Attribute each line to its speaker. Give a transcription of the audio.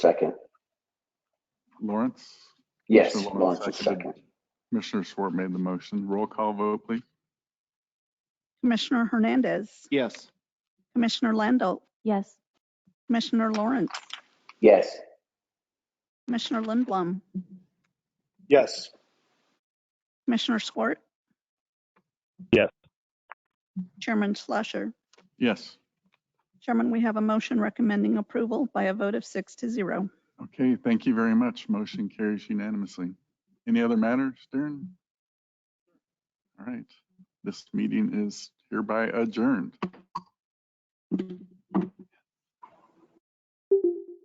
Speaker 1: Second.
Speaker 2: Lawrence?
Speaker 1: Yes,
Speaker 2: Commissioner
Speaker 1: Lawrence is
Speaker 2: seconded.
Speaker 1: second.
Speaker 2: Commissioner Swart made the motion. Roll call vote, please.
Speaker 3: Commissioner Hernandez,
Speaker 2: Yes.
Speaker 3: Commissioner Landau,
Speaker 4: Yes.
Speaker 3: Commissioner Lawrence,
Speaker 1: Yes,
Speaker 3: Commissioner Lindblom,
Speaker 5: Yes.
Speaker 3: Commissioner Swart.
Speaker 5: Yes.
Speaker 3: Chairman Schlosser.
Speaker 2: Yes.
Speaker 3: Chairman, we have a motion recommending approval by a vote of six to zero.
Speaker 2: Okay, thank you very much. Motion carries unanimously. Any other matters, Darren? All right, this meeting is hereby adjourned.